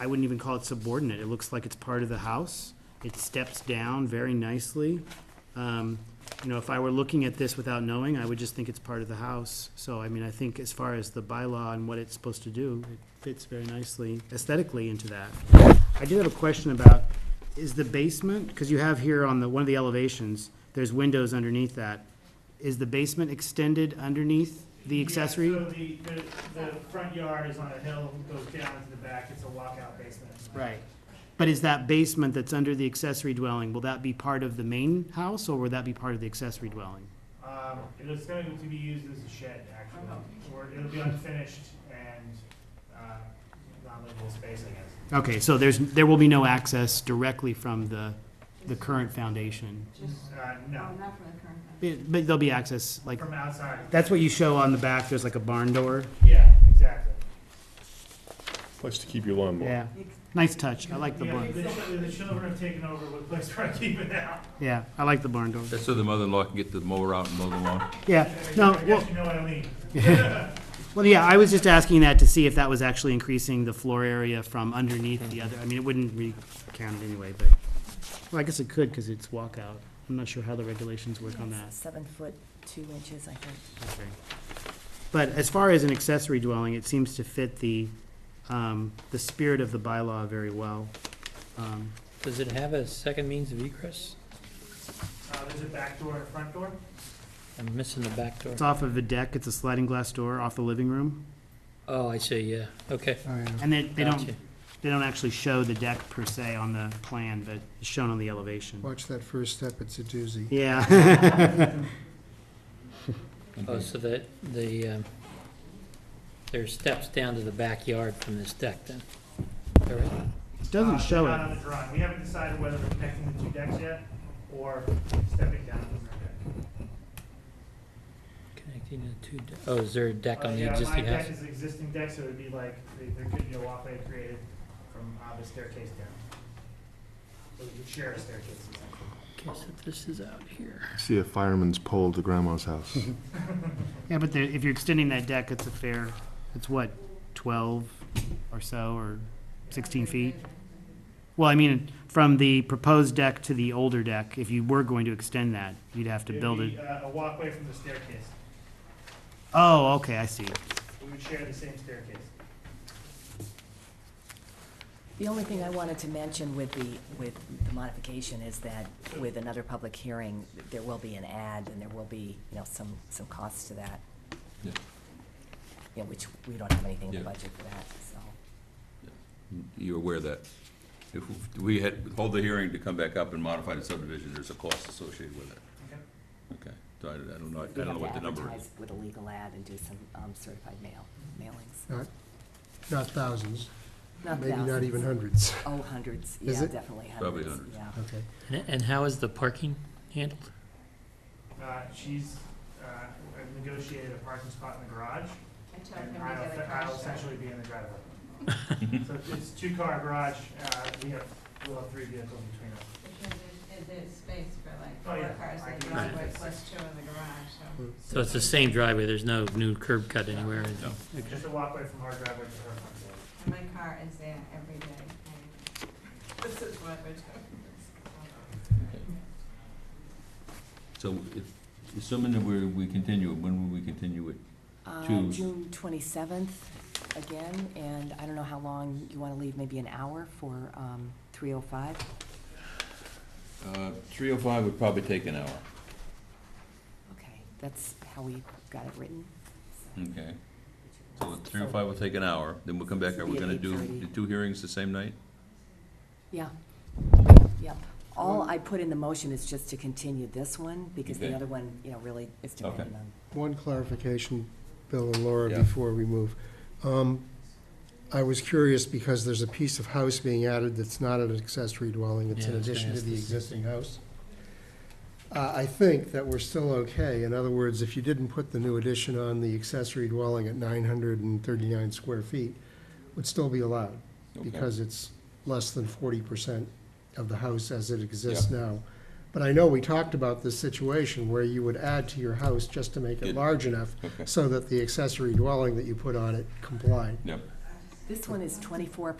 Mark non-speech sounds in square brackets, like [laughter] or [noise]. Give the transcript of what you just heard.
I wouldn't even call it subordinate. It looks like it's part of the house. It steps down very nicely. Um, You know, if I were looking at this without knowing, I would just think it's part of the house. So, I mean, I think as far as the bylaw and what it's supposed to do, it fits very nicely aesthetically into that. I did have a question about, is the basement, because you have here on the, one of the elevations, there's windows underneath that. Is the basement extended underneath the Yeah, accessory? So the, the, the front yard is on a hill, goes down into the back, it's a walkout basement. Right. But is that basement that's under the accessory dwelling, will that be part of the main house, or will that be part of the accessory dwelling? Um, it is going to be used as a shed, actually, or it'll be unfinished and, uh, non-livable space, I guess. Okay, so there's, there will be no access directly from the, the current foundation. Just, Uh, oh, no, not for the current. one. But but there'll be access, like, from outside, that's what you show on the back, there's like a barn door. yeah, exactly. Place to keep your lawnmower. Yeah, nice touch, I like the Yeah, barn, the, chi- the children have taken over with [laughs] place where I keep it now. yeah, I like the barn door. That's so the mother-in-law can get the mower out and mow the lawn. Yeah, no, I well, guess you know what I mean. well, yeah, I was just asking that to see if that was actually increasing the floor area from underneath the other, I mean, it wouldn't be counted anyway, but, well, I guess it could, because it's walkout. I'm not sure how the regulations work on that. Seven foot, two inches, I think. Okay. But as far as an accessory dwelling, it seems to fit the, um, the spirit of the bylaw very well. Um, Does it have a second means of egress? Uh, there's a back door and a front door. I'm missing the back door. It's off of a deck, it's a sliding glass door off the living room, Oh, I see, yeah, okay. uh, and they, they don't, Gotcha. they don't actually show the deck per se on the plan, but it's shown on the elevation. Watch that first step, it's a doozy. Yeah. [laughs] Oh, so that the, um, there's steps down to the backyard from this deck then? All right. Uh, Doesn't show they're Not it. on the drawing, we haven't decided whether we're connecting the two decks yet, or stepping down from the deck. Connecting the two, de- oh, is there a deck Uh, on the yeah, existing My house? deck is an existing deck, so it'd be like, th- there could be a walkway created from uh, the staircase down. So we could share a staircase. essentially. Okay, so this is out here. See a fireman's pole to grandma's house. [laughs] Yeah, but the, if you're extending that deck, it's a fair, it's what, twelve or so, or sixteen feet? Well, I mean, from the proposed deck to the older deck, if you were going to extend that, you'd have to build It'd it. be uh, a walkway from the staircase. Oh, okay, I see. We would share the same staircase. The only thing I wanted to mention with the, with the modification is that with another public hearing, there will be an ad and there will be, you know, some, some costs to that. Yeah. You know, which we don't have anything in the Yeah. budget for that, so. You're aware of that. If we had, hold the hearing to come back up and modify the subdivision, there's a cost associated with it. Okay. Okay, so I I don't know, I We don't have know to what the number is. advertise With a legal ad and do some um, certified mail, mailings. Not, not thousands, Not maybe not thousands. even hundreds. Oh, hundreds, Is yeah, it? definitely hundreds. Probably hundreds. Yeah. Okay. And- And how is the parking handled? Uh, She's uh, I've negotiated a parking spot in the garage, I told him and to I'll get a I'll crash essentially be in the driveway. So it's- it's two-car garage, uh, we have, we'll have three vehicles between us. Because there's, there's space for like Oh, yeah. four cars I in the can- driveway plus two in the garage, so. So it's the same driveway, there's no new curb cut anywhere? and- No. Just a walkway from our driveway to her front door. And my car is there every day, and this is what we're doing. So if- assuming that we, we continue it, when will we continue it? Uh, To- June twenty-seventh again, and I don't know how long you wanna leave, maybe an hour for, um, three oh five? Three oh five would probably take an hour. Okay, that's how we got it written. Okay, Hmm. so three oh five will take an hour, then we'll come back, are we Yeah, gonna do 8:30. the two hearings the same night? Yeah, yeah. All I put in the motion is just to continue this one, because the Okay. other one, you know, really is Okay. dependent on. One clarification, Bill and Laura, Yeah. before we move. Um, I was curious because there's a piece of house being added that's not an accessory dwelling, it's Yeah, in I was gonna addition to ask the this. existing house. Uh, I think that we're still okay. In other words, if you didn't put the new addition on the accessory dwelling at nine hundred and thirty-nine square feet, would still be allowed. Okay. because it's less than forty percent of the house as it exists now. But I know we talked about this situation where you would add to your house just to make Yeah. it large enough Okay. so that the accessory dwelling that you put on it complied. Yep. This one is twenty-four